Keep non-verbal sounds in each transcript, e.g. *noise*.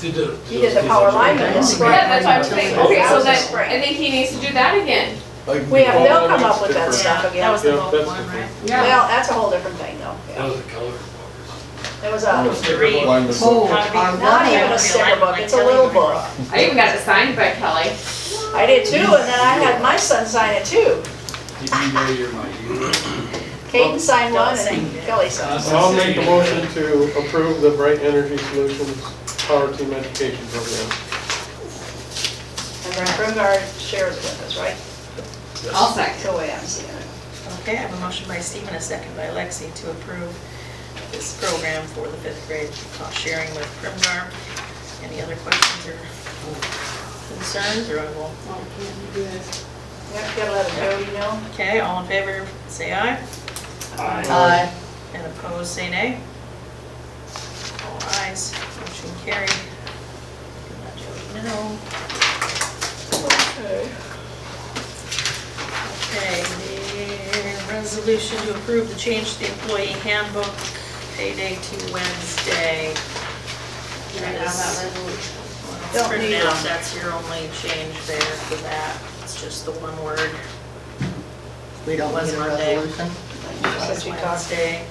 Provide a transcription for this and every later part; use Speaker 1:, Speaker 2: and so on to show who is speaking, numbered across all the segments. Speaker 1: He did.
Speaker 2: He did the power line in the spring.
Speaker 3: Yeah, that's what I'm saying, okay, so
Speaker 2: That was the
Speaker 3: then, I
Speaker 2: spring.
Speaker 3: think he needs to do that again.
Speaker 4: Like,
Speaker 2: We have, they'll
Speaker 4: all
Speaker 2: come up
Speaker 4: these
Speaker 2: with that
Speaker 4: different-
Speaker 2: stuff
Speaker 5: That
Speaker 2: again.
Speaker 5: was the
Speaker 1: Yeah,
Speaker 5: whole
Speaker 1: that's
Speaker 5: one,
Speaker 1: the
Speaker 5: right?
Speaker 2: Well, that's a whole different thing though.
Speaker 1: That
Speaker 2: yeah.
Speaker 1: was a color.
Speaker 2: It was a,
Speaker 5: Three.
Speaker 4: Alignments of-
Speaker 6: Oh,
Speaker 5: Not
Speaker 2: not
Speaker 6: Not
Speaker 2: even a sticker book, it's a little book.
Speaker 3: I even got it signed by Kelly.
Speaker 2: I did too, and then I had my son sign it too.
Speaker 1: Did you know you're my hero?
Speaker 2: Caden signed one and Kelly signed one.
Speaker 7: I'll make a motion to approve the Bright Energy Solutions Power Team Education Program.
Speaker 2: And then Brungard shares it with us, right?
Speaker 3: I'll second.
Speaker 2: That's the way I'm seeing it.
Speaker 6: Okay, I have a motion by Steve and a second by Lexi to approve this program for the fifth grade cost sharing with Primgar. Any other questions or concerns, or I will,
Speaker 2: Yep, gotta let him go, you know?
Speaker 6: okay, all in favor, say aye,
Speaker 5: Aye.
Speaker 6: and opposed, say nay. All ayes, motion carried. Let Jody know.
Speaker 2: Okay.
Speaker 6: Okay, the resolution to approve the change to the employee handbook, payday to Wednesday. Well, it's
Speaker 2: Don't
Speaker 6: written
Speaker 2: need
Speaker 6: out,
Speaker 2: them.
Speaker 6: That's your only change there for that, it's just the one word.
Speaker 5: We don't need
Speaker 6: Was
Speaker 5: a
Speaker 6: Monday.
Speaker 5: resolution,
Speaker 2: Since we talked,
Speaker 6: Wednesday,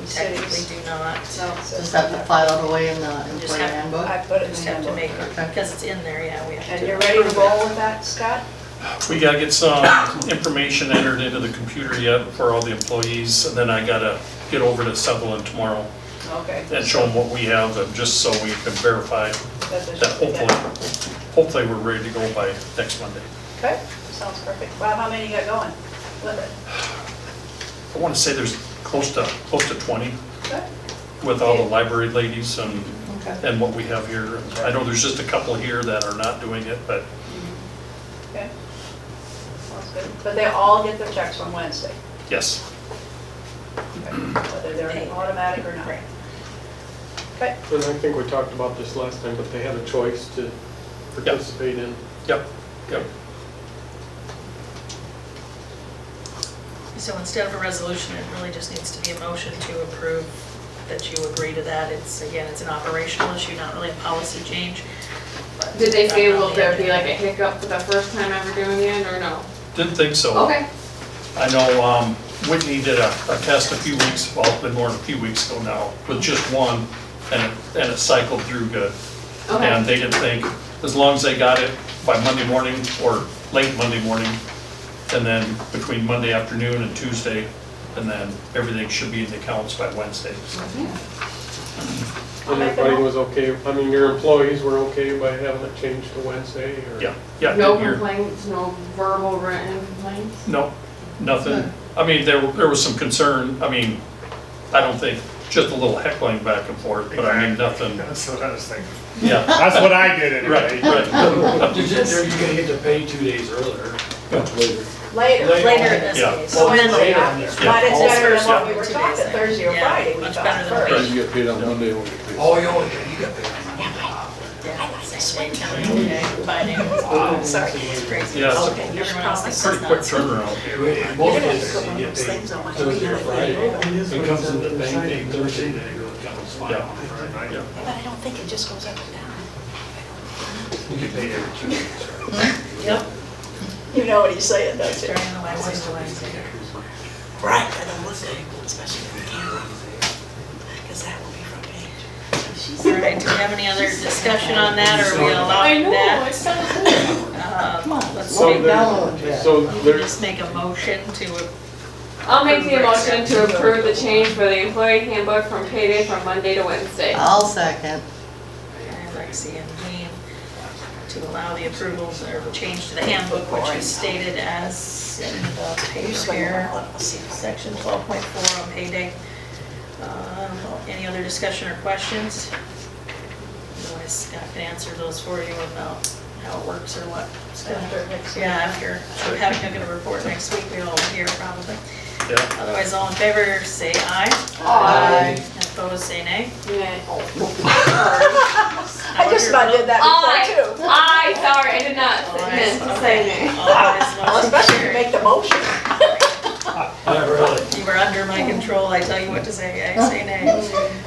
Speaker 6: we technically do not,
Speaker 2: no, so-
Speaker 5: just have to file it away in the
Speaker 6: Just
Speaker 5: employee
Speaker 6: have-
Speaker 5: handbook.
Speaker 2: I put it in the
Speaker 6: just have to
Speaker 2: handbook.
Speaker 6: make, because it's in there, yeah, we have to.
Speaker 2: And you're ready to
Speaker 6: approve it.
Speaker 2: roll with that, Scott?
Speaker 8: We gotta get some information entered into the computer yet for all the employees, and then I gotta get over to Sutherland tomorrow
Speaker 2: Okay.
Speaker 8: and show them what we have, and just so we can verify
Speaker 2: That's what
Speaker 8: that
Speaker 2: you-
Speaker 8: hopefully, hopefully we're ready to go by next Monday.
Speaker 2: Okay, sounds perfect. Bob, how many you got going with it?
Speaker 8: I wanna say there's close to, close to twenty
Speaker 2: Okay.
Speaker 8: with all the library ladies and,
Speaker 5: Okay.
Speaker 8: and what we have here. I know there's just a couple here that are not doing it, but
Speaker 2: Okay. Sounds good. But they all get their checks on Wednesday,
Speaker 8: yes.
Speaker 2: whether they're automatic or not.
Speaker 6: Right.
Speaker 2: Okay,
Speaker 7: And I think we talked about this last time, but they had a choice to participate in.
Speaker 8: Yep, yep.
Speaker 6: So instead of a resolution, it really just needs to be a motion to approve that you agree to that. It's, again, it's an operational issue, not really a policy change. but-
Speaker 3: Did they say will there be like a hiccup for the first time ever doing it, or no?
Speaker 8: Didn't think so.
Speaker 3: Okay,
Speaker 8: I know um, Whitney did a, a test a few weeks, well, it's been more than a few weeks ago now, with just one, and it, and it cycled through good. And
Speaker 3: okay.
Speaker 8: they didn't think, as long as they got it by Monday morning or late Monday morning, and then between Monday afternoon and Tuesday, and then everything should be in the accounts by Wednesday.
Speaker 2: I'll
Speaker 7: And
Speaker 2: make a
Speaker 7: everybody
Speaker 2: note.
Speaker 7: was okay, I mean, your employees were okay by having it changed to Wednesday or?
Speaker 8: Yeah, yeah.
Speaker 3: No
Speaker 8: you're-
Speaker 3: complaints, no verbal written complaints?
Speaker 8: No, nothing. I mean, there, there was some concern, I mean, I don't think, just a little heckling back and forth, but I mean,
Speaker 9: *laughs*
Speaker 8: nothing,
Speaker 9: That's what I was thinking.
Speaker 8: yeah,
Speaker 9: That's what I did anyway.
Speaker 8: right, right.
Speaker 1: You're just- you're gonna get to pay two days earlier.
Speaker 2: later.
Speaker 6: Later in this
Speaker 8: Yeah.
Speaker 6: case.
Speaker 2: So Wednesday,
Speaker 1: Later.
Speaker 2: but it's better than what we were
Speaker 6: Two days
Speaker 2: talking,
Speaker 6: there.
Speaker 2: Thursday or
Speaker 6: Yeah,
Speaker 2: Friday, we
Speaker 6: much
Speaker 2: thought
Speaker 6: better than
Speaker 2: first.
Speaker 4: Friday you get paid on Monday, when you get paid.
Speaker 1: Oh, you only, you got paid on Monday.
Speaker 6: Yeah, same day, county, okay, by name. Sorry, it's crazy.
Speaker 8: Yeah, it's a
Speaker 6: Okay, everyone else thinks it's
Speaker 8: Pretty quick
Speaker 6: nuts.
Speaker 8: turnaround.
Speaker 1: Wait, Most places you get paid Thursday or Friday. It comes in the bank day Thursday, then it goes down to spot on Friday night.
Speaker 8: Yeah.
Speaker 2: But I don't think it just goes up and down.
Speaker 1: You get paid every two days.
Speaker 6: Yep.
Speaker 2: You know what he's saying, don't you?
Speaker 6: Starting on the Wednesday, the Wednesday.
Speaker 10: Right, I don't want to, especially in camera, because that will be from me.
Speaker 6: All right, do we have any other discussion on that, or are we allowing that?
Speaker 3: it's so cool.
Speaker 6: Come on, let's
Speaker 7: So
Speaker 6: see.
Speaker 5: Right now,
Speaker 7: there's,
Speaker 5: yeah.
Speaker 7: so
Speaker 6: You can
Speaker 7: there's
Speaker 6: just make a motion to
Speaker 3: I'll make the motion to approve the change for the employee handbook from payday from Monday to Wednesday.
Speaker 5: I'll second.
Speaker 6: and Lexi and Jean to allow the approvals or the change to the handbook, which is stated as in the page here, section 12.4 on payday. Um, Any other discussion or questions? Otherwise Scott can answer those for you about how it works or what. Scott?
Speaker 2: After next
Speaker 6: Yeah, after, we're having a good report next week, we all hear probably.
Speaker 8: Yeah,
Speaker 6: Otherwise, all in favor, say aye.
Speaker 3: Aye.
Speaker 6: And Opposed, say nay.
Speaker 3: Yeah.
Speaker 2: I just about did that
Speaker 3: I,
Speaker 2: before too.
Speaker 3: I, sorry, I did not
Speaker 6: Aye.
Speaker 3: meant to say name.
Speaker 2: *laughs*
Speaker 6: All ayes,
Speaker 2: Well,
Speaker 6: motion
Speaker 2: Especially if you
Speaker 6: carried.
Speaker 2: make the motion.
Speaker 1: Not really.
Speaker 2: *laughs*
Speaker 6: You were under my control, I tell you what to say, I say nay.